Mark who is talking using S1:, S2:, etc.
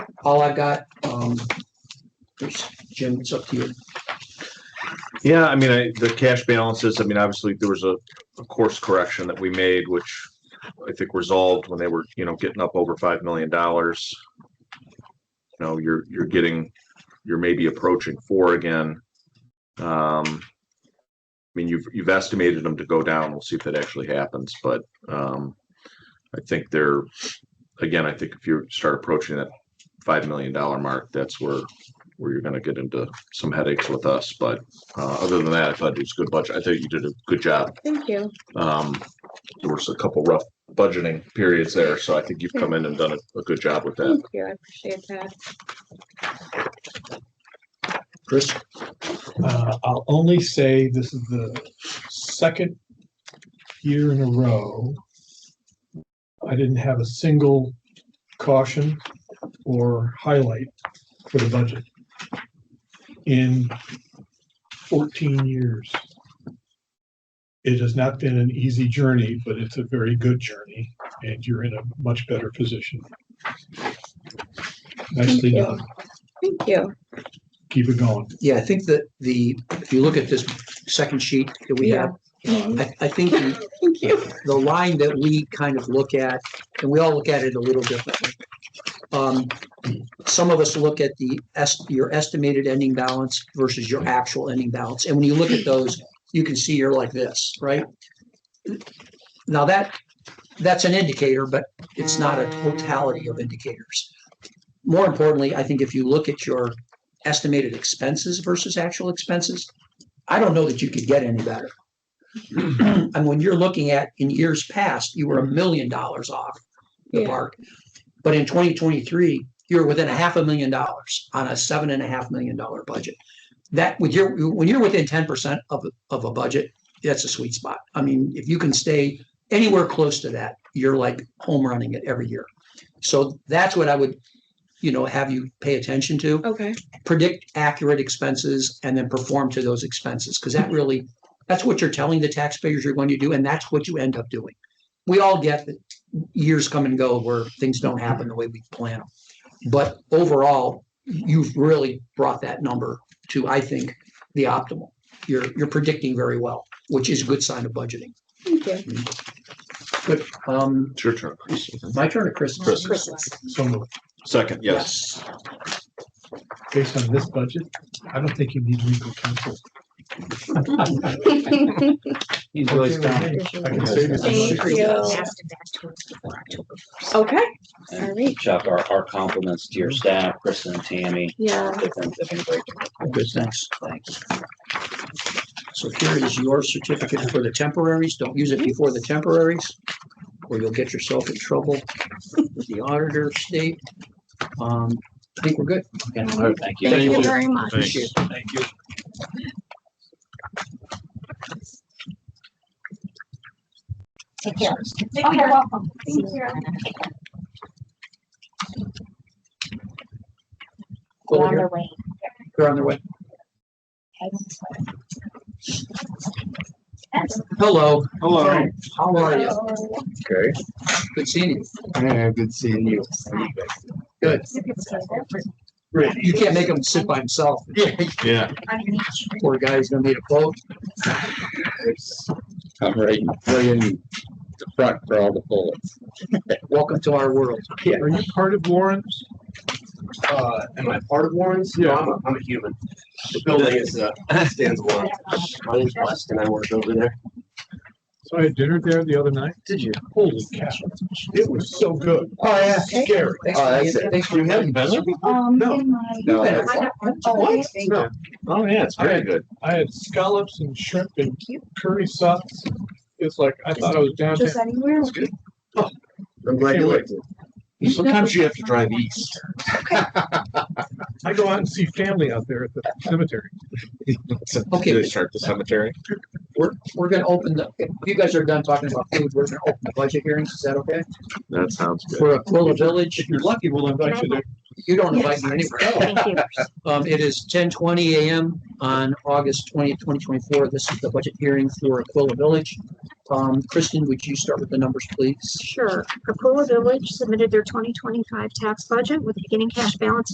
S1: all I've got. Um, Jim, it's up to you.
S2: Yeah, I mean, I, the cash balances, I mean, obviously there was a, a course correction that we made, which I think resolved when they were, you know, getting up over five million dollars. You know, you're, you're getting, you're maybe approaching four again. Um, I mean, you've, you've estimated them to go down. We'll see if that actually happens, but, um, I think they're, again, I think if you start approaching that five million dollar mark, that's where, where you're gonna get into some headaches with us, but uh, other than that, I thought it was a good budget. I thought you did a good job.
S3: Thank you.
S2: Um, there was a couple rough budgeting periods there, so I think you've come in and done a, a good job with that.
S3: Thank you. I appreciate that.
S1: Chris?
S4: Uh, I'll only say this is the second year in a row. I didn't have a single caution or highlight for the budget. In fourteen years. It has not been an easy journey, but it's a very good journey and you're in a much better position. Nicely
S3: you.
S4: done.
S3: Thank you.
S4: Keep it going.
S1: Yeah, I think that the, if you look at this second sheet that we have,
S3: Mhm.
S1: I, I think the-
S3: Thank you.
S1: the line that we kind of look at, and we all look at it a little differently. Um, some of us look at the est- your estimated ending balance versus your actual ending balance, and when you look at those, you can see you're like this, right? Now that, that's an indicator, but it's not a totality of indicators. More importantly, I think if you look at your estimated expenses versus actual expenses, I don't know that you could get any better. And when you're looking at in years past, you were a million dollars off the
S3: Yeah.
S1: mark. But in twenty twenty-three, you're within a half a million dollars on a seven and a half million dollar budget. That when you're, when you're within ten percent of, of a budget, that's a sweet spot. I mean, if you can stay anywhere close to that, you're like home running it every year. So that's what I would, you know, have you pay attention to
S3: Okay.
S1: predict accurate expenses and then perform to those expenses, because that really, that's what you're telling the taxpayers you're going to do, and that's what you end up doing. We all get that years come and go where things don't happen the way we plan them. But overall, you've really brought that number to, I think, the optimal. You're, you're predicting very well, which is a good sign of budgeting.
S3: Thank you.
S1: But, um,
S2: It's your turn, Chris.
S1: my turn to Chris.
S2: Chris.
S3: Christmas.
S4: So moved.
S2: Second, yes.
S4: based on this budget, I don't think you need legal counsel.
S5: really strong.
S4: I can save you some money.
S3: Thank you. Okay. All right.
S5: Chuck, our, our compliments to
S3: Mm-hmm.
S5: your staff, Kristen and Tammy.
S3: Yeah.
S5: The things have been great.
S1: Good, thanks, thanks. So here is your certificate for the temporaries. Don't use it before the temporaries, or you'll get yourself in trouble with the auditor of state. Um, I think we're good.
S5: Okay, Thank you.
S3: Thank you very much.
S2: Thanks.
S1: Appreciate it. Thank you.
S6: Take care. Oh, you're welcome. Thank you.
S1: Well,
S6: on
S1: you're-
S6: their way.
S1: You're on the way.
S6: That's-
S1: Hello,
S7: Hello.
S1: how are you?
S7: Okay.
S1: Good seeing you.
S7: Yeah, good seeing you.
S1: Good.
S4: Great.
S1: You can't make him sit by himself.
S2: Yeah.
S6: Underneath you.
S1: Poor guy's gonna need a boat.
S7: I'm right in the front for all the bullets.
S1: Welcome to our world.
S4: Are you part of Lawrence?
S8: Uh, am I part of Warren's? No, I'm a, I'm a human. The building is, uh, stands alone. My name's West and I work over there.
S4: So I had dinner there the other night.
S8: Did you?
S4: Holy cow. It was so good. Oh, yeah. Scary.
S1: Thanks
S7: Oh,
S1: for
S8: Uh,
S7: that's
S1: being-
S7: it.
S1: Uh, Thanks for having us.
S6: Um,
S4: No.
S6: in my-
S7: No,
S1: that's-
S6: Oh,
S4: What?
S6: yeah.
S2: Oh, yeah, it's very good.
S4: I had scallops and shrimp and curry sauce. It's like, I thought I was downtown.
S6: Just anywhere.
S8: I'm glad you liked it. Sometimes you have to drive east.
S4: I go out and see family out there at the cemetery.
S1: Okay.
S7: Did they start the cemetery?
S1: We're, we're gonna open the, if you guys are done talking about food, we're gonna open the budget hearings, is that okay?
S2: That sounds good.
S1: For Aquila Village,
S4: If you're lucky, we'll invite you there.
S1: you don't invite me anywhere.
S6: Thank you.
S1: Um, it is ten twenty AM on August twentieth, twenty twenty-four. This is the budget hearing for Aquila Village. Um, Kristen, would you start with the numbers, please?
S6: Sure. Aquila Village submitted their 2025 tax budget with beginning cash balance